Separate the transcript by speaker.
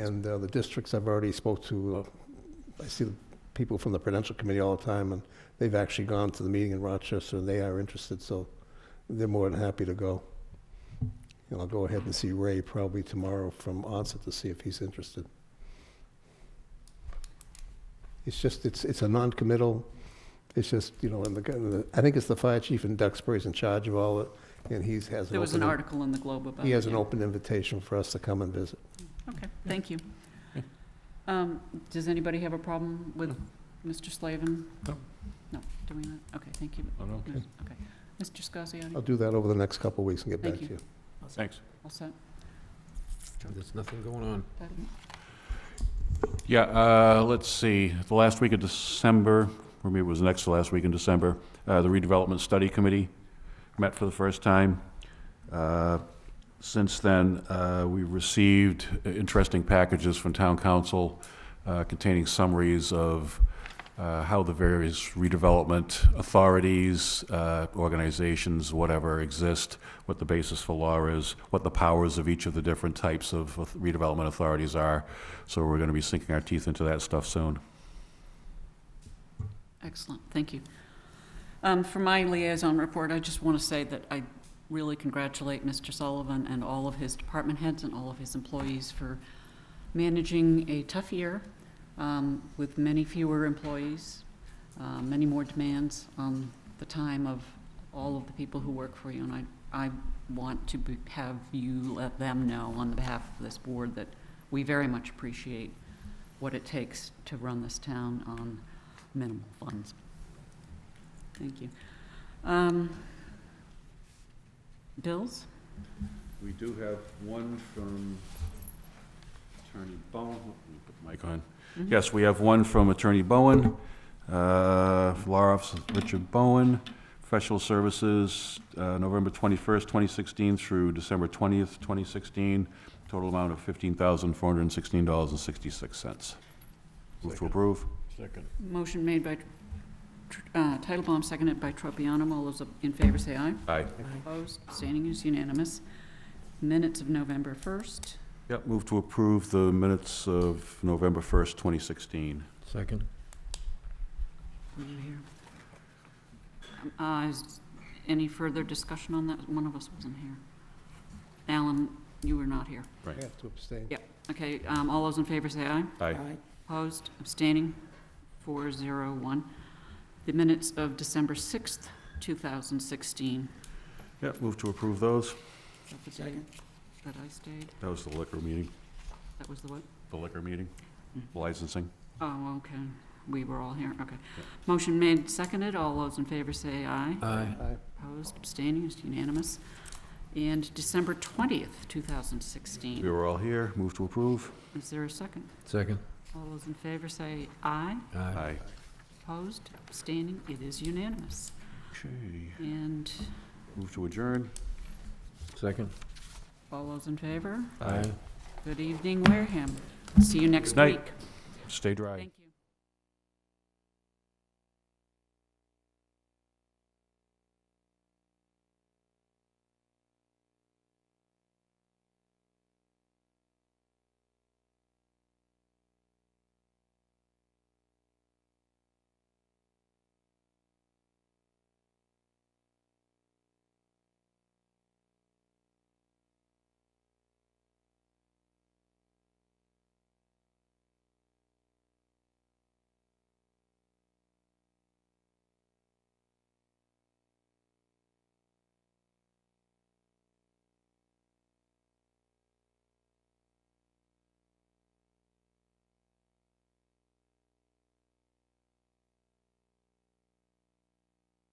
Speaker 1: And uh, the districts I've already spoke to, uh, I see the people from the Prudential Committee all the time, and they've actually gone to the meeting in Rochester, and they are interested, so they're more than happy to go. And I'll go ahead and see Ray probably tomorrow from onset to see if he's interested. It's just, it's, it's a non-committal, it's just, you know, and the, guy- the- I think it's the fire chief in Duxbury's in charge of all it, and he's has an
Speaker 2: There was an
Speaker 1: open,
Speaker 2: article in the Globe about it.
Speaker 1: he has an
Speaker 2: yeah.
Speaker 1: open invitation for us to come and visit.
Speaker 2: Okay, thank you.
Speaker 3: Yeah.
Speaker 2: Um, Does anybody have a problem with Mr. Slavin?
Speaker 3: No.
Speaker 2: No, doing that? Okay, thank you.
Speaker 3: I'm okay.
Speaker 2: No, Okay. Mr. Scasiotti,
Speaker 1: I'll do that over the next couple of weeks and get
Speaker 2: Thank
Speaker 1: back to
Speaker 2: you.
Speaker 1: you.
Speaker 3: Thanks.
Speaker 2: all set?
Speaker 4: There's nothing going on.
Speaker 2: That-
Speaker 3: Yeah, uh, let's see, the last week of December, or maybe it was next to last week in December, uh, the redevelopment study committee met for the first time. Uh, Since then, uh, we've received interesting packages from town council uh, containing summaries of uh, how the various redevelopment authorities, uh, organizations, whatever, exist, what the basis for law is, what the powers of each of the different types of redevelopment authorities are. So we're going to be sinking our teeth into that stuff soon.
Speaker 2: Excellent, thank you. Um, For my liaison report, I just want to say that I really congratulate Mr. Sullivan and all of his department heads and all of his employees for managing a tough year um, with many fewer employees, uh, many more demands on the time of all of the people who work for you. And I, I want to be- have you let them know on behalf of this board that we very much appreciate what it takes to run this town on minimal funds. Thank you. Um, Bills?
Speaker 3: We do have one from Attorney Bowen. Let me put the mic on.
Speaker 2: Mhm.
Speaker 3: Yes, we have one from Attorney Bowen, uh, Law Office of Richard Bowen, Professional Services, uh, November 21st, 2016 through December 20th, 2016, total amount of $15,416.66. Move to approve.
Speaker 4: Second.
Speaker 2: Motion made by Tr- uh, Titlebaum, seconded by Tropiano. All those in favor say aye.
Speaker 3: Aye.
Speaker 2: Opposed, abstaining is unanimous. Minutes of November 1st.
Speaker 3: Yep, move to approve the minutes of November 1st, 2016.
Speaker 4: Second.
Speaker 2: Were you here? Uh, is Any further discussion on that? One of us wasn't here. Alan, you were not here.
Speaker 1: I have to abstain.
Speaker 2: Okay, um, all those in favor say aye.
Speaker 3: Aye.
Speaker 2: Opposed, abstaining, four zero one. The minutes of December sixth, two thousand sixteen.
Speaker 3: Yep, move to approve those.
Speaker 2: Second. That I stayed,
Speaker 3: That was the liquor meeting,
Speaker 2: that was the what?
Speaker 3: the liquor meeting, Mm. licensing.
Speaker 2: Oh, okay, we were all here, okay. Motion made, seconded, all those in favor say aye.
Speaker 4: Aye.
Speaker 1: Aye.
Speaker 2: Opposed, abstaining, it's unanimous. And December twentieth, two thousand
Speaker 3: We
Speaker 2: sixteen.
Speaker 3: were all here, move to approve.
Speaker 2: Is there a second?
Speaker 4: Second.
Speaker 2: All those in favor say aye.
Speaker 3: Aye.
Speaker 2: Opposed, abstaining, it is unanimous.
Speaker 3: Okay,
Speaker 2: And
Speaker 3: move to adjourn.
Speaker 4: Second.
Speaker 2: all those in favor?
Speaker 3: Aye.
Speaker 2: Good evening, Wareham. See you next
Speaker 3: Good night.
Speaker 2: week.
Speaker 3: Stay dry.
Speaker 2: Thank you.